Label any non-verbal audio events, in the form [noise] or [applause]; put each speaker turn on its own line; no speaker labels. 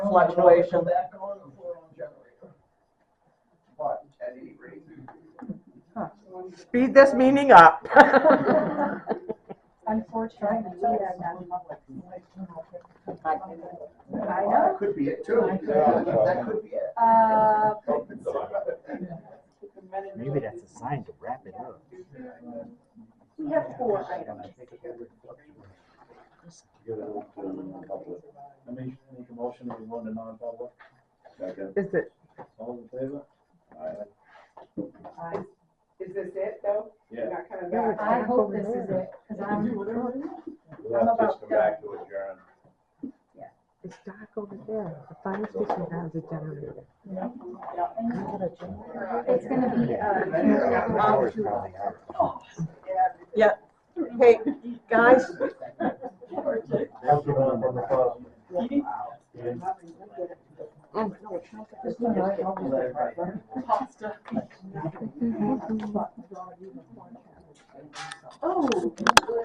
fluctuation.
Back on the four-on generator. But at any rate.
Speed this meeting
[laughs]
up.
Unfortunately, we are not public. I
That
know.
could be it too. That could be it.
Uh,
Maybe that's a sign to wrap it up.
we have four items.
I make, make a motion that we go into non-public.
Second.
Is it,
All in favor?
Is this it though?
Yeah.
You're not coming
Yeah,
back?
I hope this is it, because I'm,
We'll have to just come back to adjourn.
It's dark over there. The fire station has a generator.
it's gonna be,
Our
uh,
hours probably out.
hey,
[laughs]
guys,
That's the one from the closet.
Oh,